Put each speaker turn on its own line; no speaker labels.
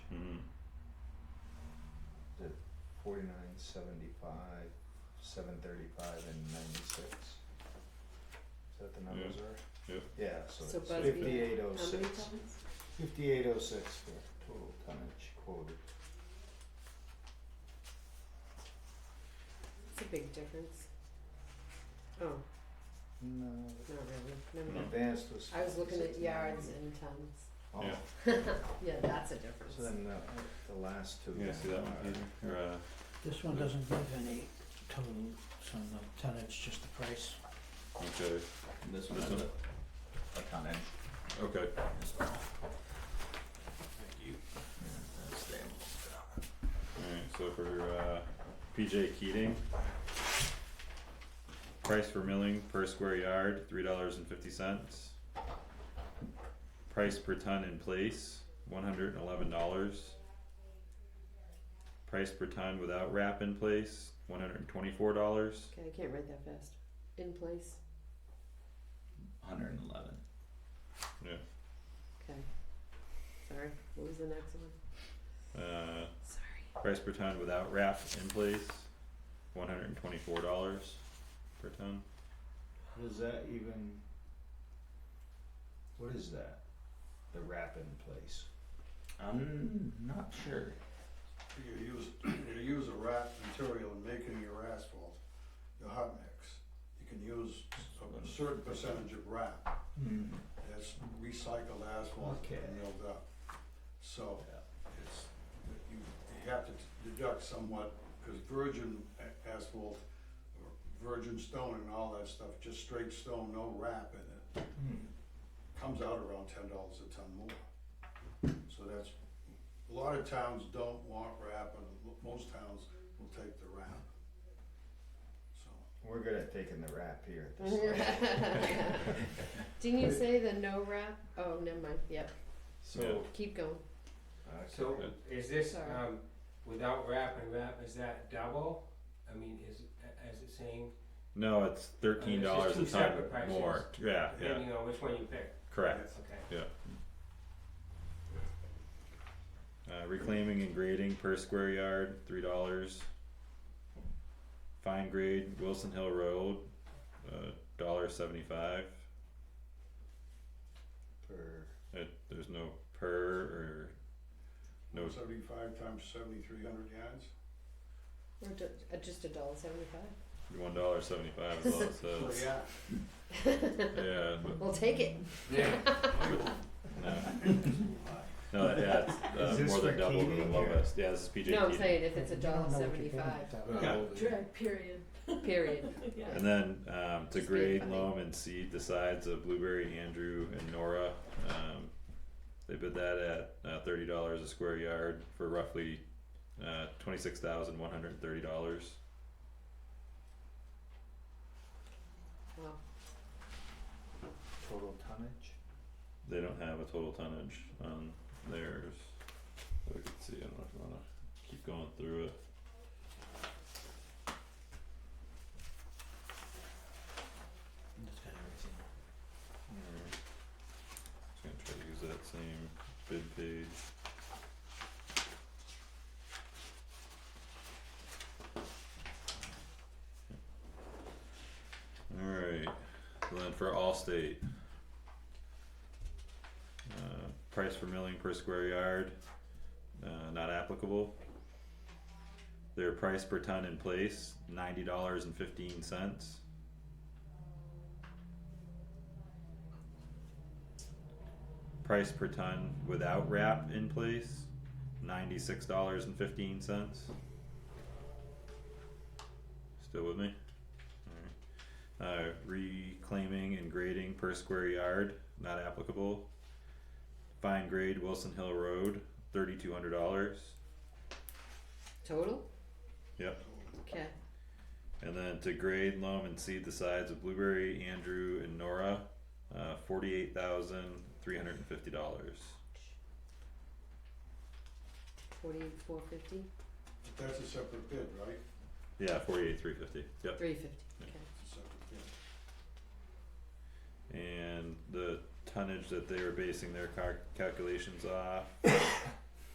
Hmm.
forty-nine, seventy-five, seven thirty-five, and ninety-six. Is that the numbers are?
yeah.
Yeah, so
So
it's
Busby,
fifty-eight oh
How many
six,
times?
fifty-eight oh six for total tonnage quoted.
It's a big difference. Oh,
No,
not really, never
No.
mind.
advanced was.
I was looking at
69.
yards and tons.
Oh,
Yeah.
Yeah, that's a difference.
so then the, the last two.
Yeah, see that one,
are-
Peter? or uh,
This one doesn't give any total on the tonnage, just the price.
okay,
This
one
one
has
is
a-
a tonnage.
okay,
Thank you. That's them.
alright, so for uh PJ Keating. Price for milling per square yard, three dollars and fifty cents. Price per ton in place, one hundred and eleven dollars. Price per ton without wrap in place, one hundred and twenty-four dollars.
Okay, I can't write that fast. In place,
Hundred and eleven.
okay. Sorry, what was the next one?
Uh,
Sorry.
price per ton without wrap in place, one hundred and twenty-four dollars per ton.
Does that even? What is that? The wrap in place.
I'm not sure.
You use, you use a wrap material in making your asphalt, your hot mix. You can use a certain percentage of wrap,
Hmm.
that's recycled asphalt
Okay.
and milled up. So it's, you you have to deduct somewhat, because virgin a- asphalt, or virgin stone and all that stuff, just straight stone, no wrap in it,
Hmm.
comes out around ten dollars a ton more. So that's, a lot of towns don't want wrap, and mo- most towns will take the wrap. So,
We're good at taking the wrap here at this level.
Didn't you say the no wrap? Oh, never mind, yep,
So, uh,
keep going.
okay.
So is this,
Sorry.
um, without wrap and wrap, is that double? I mean, is, is it same,
No, it's thirteen dollars a
It's just two
ton
separate prices.
more. Yeah, yeah,
depending on which one you pick?
correct.
Okay.
Uh, reclaiming and grading per square yard, three dollars. Fine grade Wilson Hill Road, uh, dollar seventy-five.
Per
Uh, there's no per or no.
seventy-five times seventy-three hundred yards?
Or ju- uh, just a dollar seventy-five?
One dollar seventy-five is all it
Oh,
says.
yeah.
Yeah, but
We'll take it.
Yeah.
no, no, yeah,
Is
it's uh,
this
more
for
than double
Keating
the
or-
lowest. Yeah, this is PJ
No, I'm
Keating.
saying if it's a
You don't
dollar
know what you're getting
seventy-five,
at that
Yeah.
Dread, period.
period.
Yeah.
And then um, to
Just being
grade,
funny.
loam, and seed the sides of Blueberry, Andrew, and Nora. Um, they bid that at uh, thirty dollars a square yard for roughly uh, twenty six thousand one hundred and thirty dollars.
Wow.
total tonnage?
They don't have a total tonnage on theirs. So we can see. I don't know if you wanna keep going through it.
It's got everything.
Mm. Just gonna try to use that same bid page. Alright, so then for Allstate. Uh, price for milling per square yard, uh, not applicable. Their price per ton in place, ninety dollars and fifteen cents. price per ton without wrap in place, ninety-six dollars and fifteen cents. Still with me? Alright, uh, reclaiming and grading per square yard, not applicable. Fine grade Wilson Hill Road, thirty-two hundred dollars,
Total?
yep.
Okay.
And then to grade, loam, and seed the sides of Blueberry, Andrew, and Nora, uh, forty-eight thousand, three hundred and fifty dollars.
Forty-eight, four fifty,
But that's a separate bid, right?
Yeah, forty-eight, three fifty, yep.
three fifty, okay.
It's a separate bid.
and the tonnage that they were basing their car- calculations off